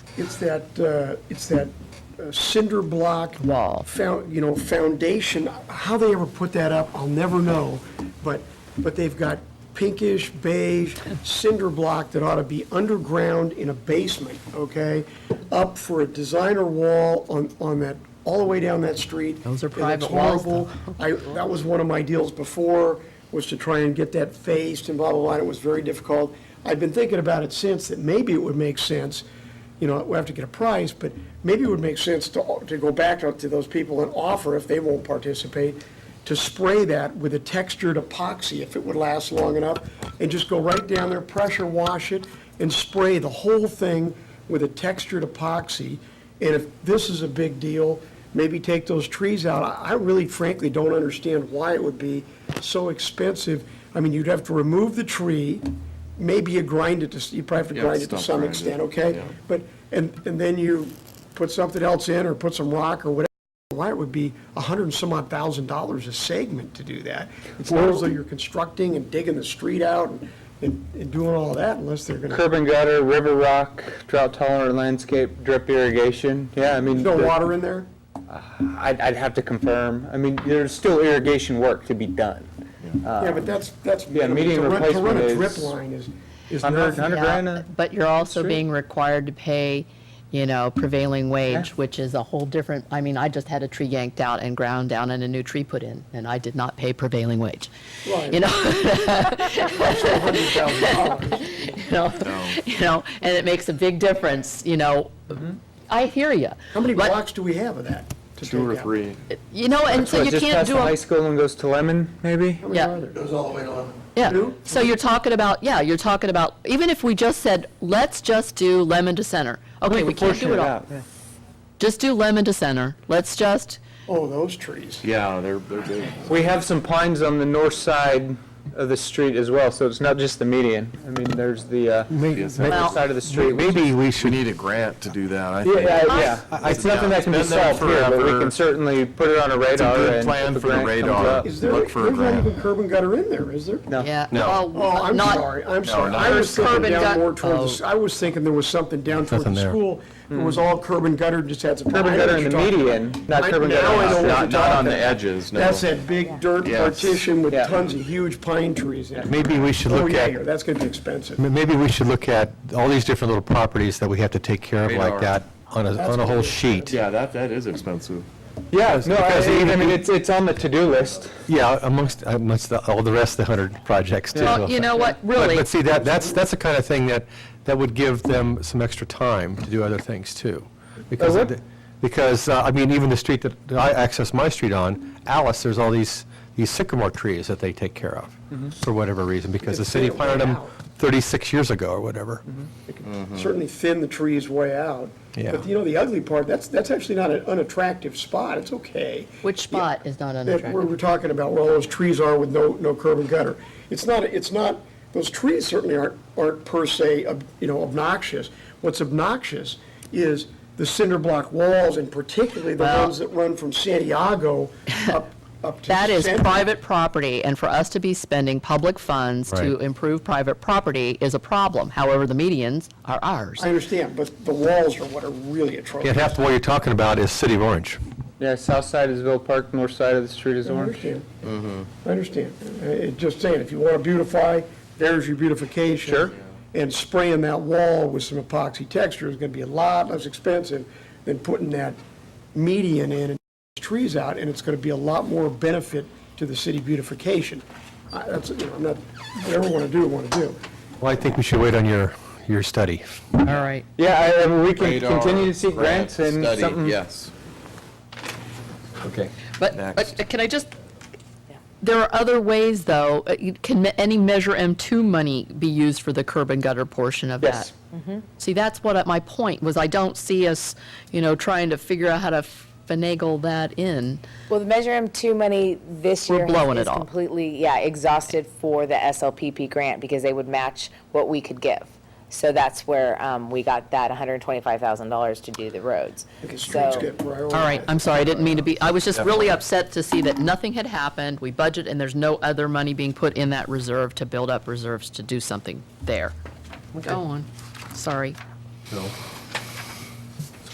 It's that, uh, it's that uh, cinder block. Wall. Found, you know, foundation, how they ever put that up, I'll never know, but, but they've got pinkish beige cinder block that ought to be underground in a basement, okay? Up for a designer wall on, on that, all the way down that street. Those are And it's private walls, horrible. I, that was one of my deals before, was to try and get that faced and blah, blah, blah, and it was very difficult. I've been thinking about it since, that maybe it would make sense, you know, we have to get a price, but maybe it would make sense to, to go back out to those people and offer, if they won't participate, to spray that with a textured epoxy, if it would last long enough, and just go right down there, pressure wash it, and spray the whole thing with a textured epoxy. And if this is a big deal, maybe take those trees out. I I really frankly don't understand why it would be so expensive. I mean, you'd have to remove the tree, maybe you grind it, to s- you probably have to Yeah, grind it to stump some grind it, extent, okay? yeah. But, and, and then you put something else in, or put some rock or whatever, why it would be a hundred and some odd thousand dollars a segment to do that. It's not as though you're constructing and digging the street out and- and, and doing all that unless they're gonna, Curb and gutter, river rock, drought tolerant landscape, drip irrigation. Yeah, I mean, no the- water in there? I'd, I'd have to confirm. I mean, there's still irrigation work to be done. Yeah, but that's, that's. Yeah, minimal. median To run- replacement To run a is drip line is, is Hundred, nothing. hundred Yeah, grand uh, a- But you're also Sure. being required to pay, you know, prevailing wage, Yeah. which is a whole different, I mean, I just had a tree yanked out and ground down and a new tree put in, and I did not pay prevailing wage. Right. You know, $100,000. you know, you know, and it makes a big difference, you know. Mm-hmm. I hear you. How many blocks do we have of that? to Two or take out? three. You know, and so What, you just can't past do the a. high school and goes to Lemon, maybe? How many Yeah. are there? Yeah, Two? so you're talking about, yeah, you're talking about, even if we just said, let's just do Lemon to Center. Okay, we can't do it all. Just do Lemon to Center. Let's just, Oh, those trees. Yeah, they're, they're big. We have some pines on the north side of the street as well, so it's not just the median. I mean, there's the, uh, Yes, other Well- side of the street. We- Maybe we We should, need a grant to do that, I Yeah, think. yeah, yeah. It's nothing that can be It's been there solved here, but we forever. can certainly put it on a a radar. good and if plan a for the grant comes radar. up- Is there, Look there's for a not grant. even curb and gutter in there, is there? No. yeah. No. well, Oh, I'm not- sorry, I'm sorry. no. I was thinking Curb and down gut- more toward the, s- oh. I was thinking there was something down toward Nothing the there. school. It was all curb and gutter, just had some. Curb and I know gutter what in you're the talking about. median, not I- curb and now I know what gutter. you're Not, not on talking the about. edges, no. That's that big dirt Yes. partition with Yeah. tons of huge pine trees in it. maybe we should Oh, look yeah, at, yeah, that's gonna be expensive. m- maybe we should look at all these different little properties that we have to take care of like Radar. that on a, on a whole sheet. Yeah, that, that is expensive. Yeah, no, because I, I even mean, we- it's, it's on the to-do list. Yeah, amongst, amongst the- all the rest of the 100 projects too. Well, you know what, really, But see, that, that's, that's the kind of thing that, that would give them some extra time to do other things too. Because, would? of the- because, uh, I mean, even the street that that I access my street on, Alice, there's all these, these sycamore trees that they take care of for whatever reason, because the It's city their way planted them out. 36 years ago or whatever. certainly thin the trees way out. Yeah. But you know, the ugly part, that's, that's actually not an unattractive spot, it's okay. which spot is not That, where unattractive? we're talking about, where all those trees are with no, no curb and gutter. It's not, it's not, those trees certainly aren't, aren't per se, ob- you know, obnoxious. What's obnoxious is the cinder block walls, and particularly the Well- ones that run from Santiago up, up to. That is Center. private property, and for us to be spending public funds to Right. improve private property is a problem. However, the medians are ours. I understand, but the walls are what are really atrocious. Yeah, half the what you're talking about is City of Orange. Yeah, south side is Ville Park, north side of the street is I Orange. understand. I understand. Uh, it- Just saying, if you want to beautify, there's your beautification. Sure. And spraying that wall with some epoxy texture is going to be a lot less expensive than putting that median in and trees out, and it's going to be a lot more benefit to the city beautification. I- That's, you know, I'm not, whatever I want to do, I want to do. Well, I think we should wait on your, your study. All right. Yeah, I, I mean, we can Radar, continue to seek grant, grants and study, something. Yes. Okay. But, Next. but can I just, there are other ways, though. Uh, you- Can me- any Measure M2 money be used for the curb and gutter portion of that? Yes. See, that's what, I- my point was I don't see us, you know, trying to figure out how to finagle that in. Well, the Measure M2 money this We're year blowing is it all. completely, yeah, exhausted for the SLPP grant because they would match what we could give. So that's where um, we got that $125,000 to do the roads. The streets So, get prioritized. All right, I'm sorry, I didn't mean to be, I was just really upset to see that nothing had happened. We budget, and there's no other money being put in that reserve to build up reserves to do something there. Go on, sorry. No.